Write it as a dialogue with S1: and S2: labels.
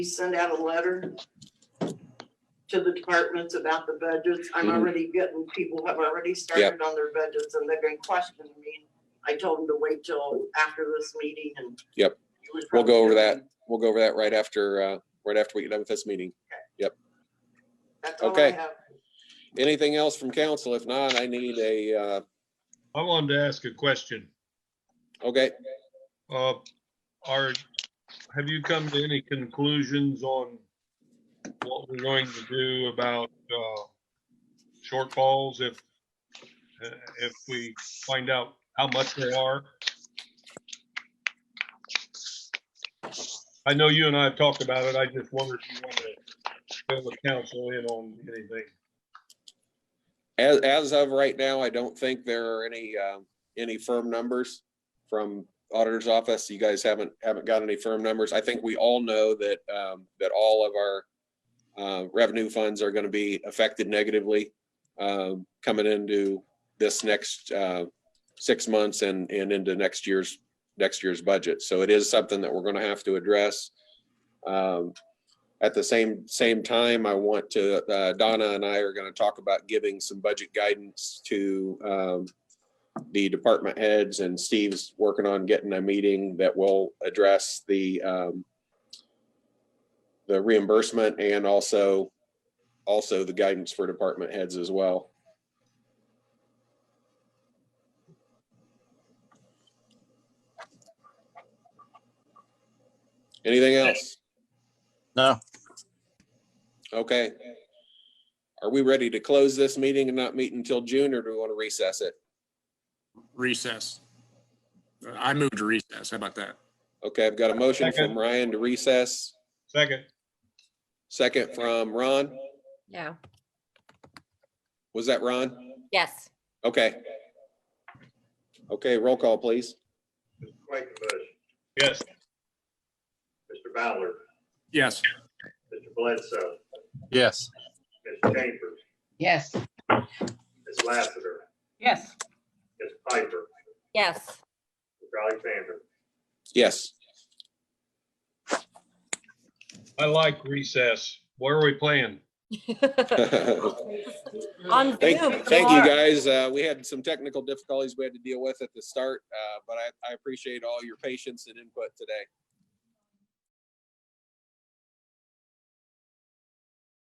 S1: we send out a letter to the departments about the budgets. I'm
S2: Mhm.
S1: already getting, people have already started on their budgets and they've been questioning me. I told them to wait till after this meeting and.
S2: Yep. We'll go over that. We'll go over that right after, uh, right after we get done with this meeting.
S1: That's all I
S2: Okay.
S1: have.
S2: Anything else from council? If not, I need a, uh,
S3: I wanted to ask a question.
S2: okay,
S3: Uh, are, have you come to any conclusions on what we're going to do about, uh, shortfalls if, uh, if we find out how much they are? I know you and I have talked about it. I just wondered if you wanted to fill the council in on anything.
S2: as, as of right now, I don't think there are any, um, any firm numbers from auditor's office. You guys haven't, haven't got any firm numbers. I think we all know that, um, that all of our, uh, revenue funds are going to be affected negatively, um, coming into this next, uh, six months and, and into next year's, next year's budget. So it is something that we're going to have to address. Um, At the same, same time, I want to, uh, Donna and I are going to talk about giving some budget guidance to, um, the department heads and Steve's working on getting a meeting that will address the, um, the reimbursement and also, also the guidance for department heads as well. Anything else?
S4: No,
S2: Okay. Are we ready to close this meeting and not meet until June, or do we want to recess it?
S5: recess. I moved to recess. How about that?
S2: Okay, I've got a motion
S3: Second.
S2: from Ryan to recess,
S3: Second,
S2: second from Ron.
S6: Yeah,
S2: Was that Ron?
S6: yes.
S2: Okay. Okay, roll call, please.
S7: Mr. Quakenbush,
S3: yes.
S7: Mr. Ballard,
S5: Yes.
S7: Mr. Bledsoe,
S4: yes.
S7: Ms. Chambers,
S8: Yes.
S7: Ms. Lassiter,
S8: Yes.
S7: Ms. Piper,
S6: Yes.
S7: Mr. Alexander.
S2: Yes,
S3: I like recess. Where are we playing?
S2: thank,
S6: On Zoom.
S2: thank you
S6: tomorrow.
S2: guys. Uh, we had some technical difficulties we had to deal with at the start, uh, but I, I appreciate all your patience and input today.